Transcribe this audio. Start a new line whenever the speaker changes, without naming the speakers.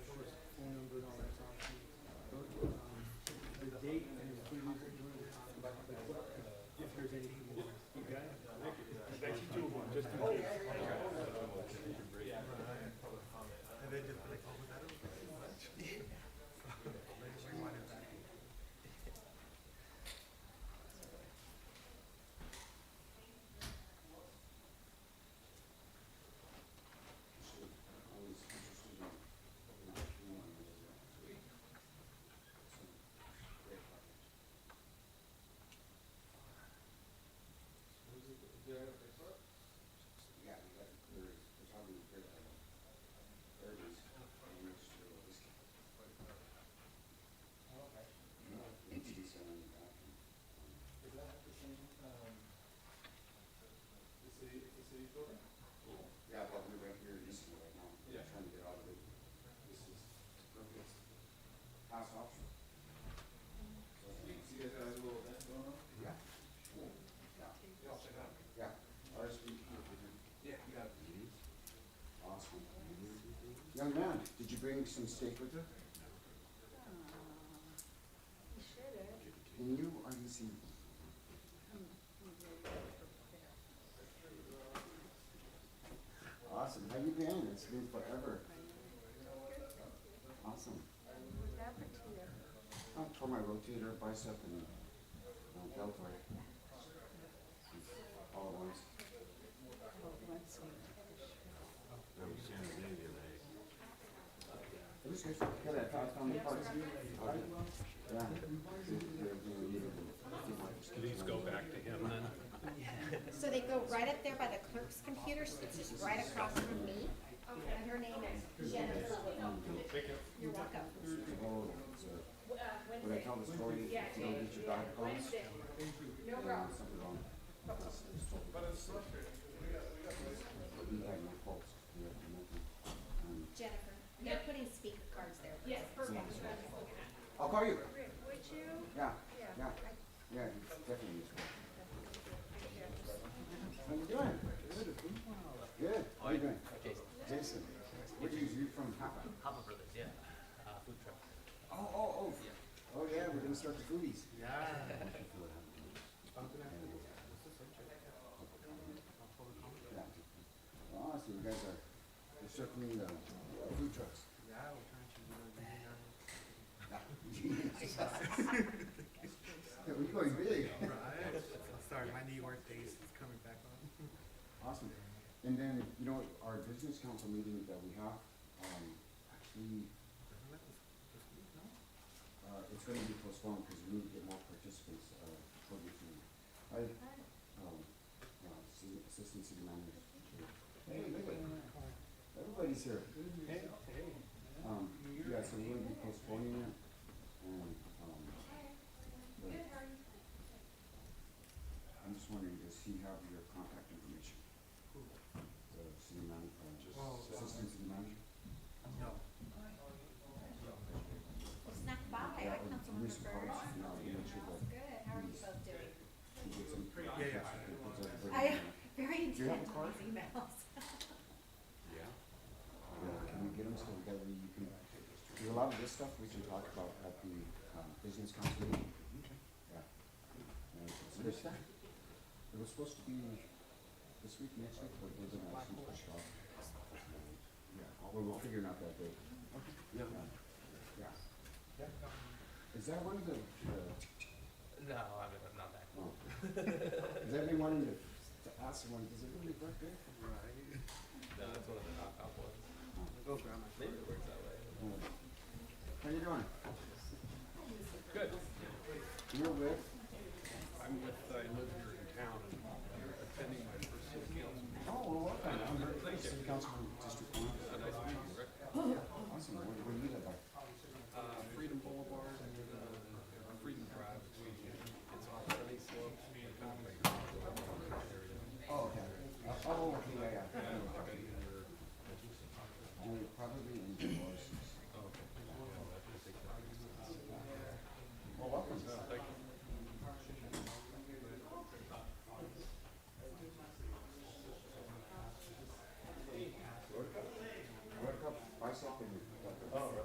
Young man, did you bring some steak with you?
You should have.
And you are deceived. Awesome. How you been? It's been forever. Awesome.
What happened to you?
I tore my rotator, bicep, and um, deltoid. All at once.
Oh, once we-
I was in San Jose the other day.
It was good. Good. I thought on the parts. Yeah.
Please go back to him then.
So they go right up there by the clerk's computer, so it's just right across from me. And her name is Jennifer Whitman. You're welcome.
Oh, it's, uh, When I tell the story, if you don't get your diet cones,
No
then
problem.
there's something wrong. But it's We have no faults. We have nothing. Um,
Jennifer, they're putting speaker cards there. Yes.
I'll call you.
Rick, would you?
Yeah,
Yeah.
yeah, yeah, it's definitely useful. How you doing? Good. How you doing? Jason,
Jason.
what do you do from Papa?
Papa Brothers, yeah. Uh, food truck.
Oh, oh, oh. Oh, yeah, we're gonna start the foodies. Yeah. Oh, so you guys are, you're circling the the food trucks. Yeah, we're going big.
Right. Sorry, my New York days is coming back on.
Awesome. And then, you know, our business council meeting that we have, um, actually, uh, it's gonna be postponed because we need to get more participants, uh, for the meeting. I, um, uh, city, assistant city manager. Hey, look at, everybody's here. Um, yeah, so we're gonna be postponing it and, um. but I'm just wondering, does he have your contact information? The city manager, uh, just
Well,
assistant city manager?
No.
Well, snuck by,
Yeah,
I
and
Councilmember
Mr. Carter,
Burge.
you know, he mentioned that
Good, how are you both doing?
he gets some-
Yeah, yeah.
he puts up a very-
I, very
Do you have a
intent on
card?
these emails.
Yeah.
Yeah, can we get them so that way you can, there's a lot of this stuff we can talk about at the, um, business council meeting. Yeah. And it's- it's just that. It was supposed to be this week, next week, but it wasn't actually pushed off. Yeah, well, we'll figure it out that day.
Yeah.
Yeah. Is that one of the, the
No, I mean, I'm not that.
Oh. Does everyone in the, to ask someone, does it really work good?
No, that's one of the knockoff ones.
Go grab my.
Maybe it works that way.
How you doing? Oh,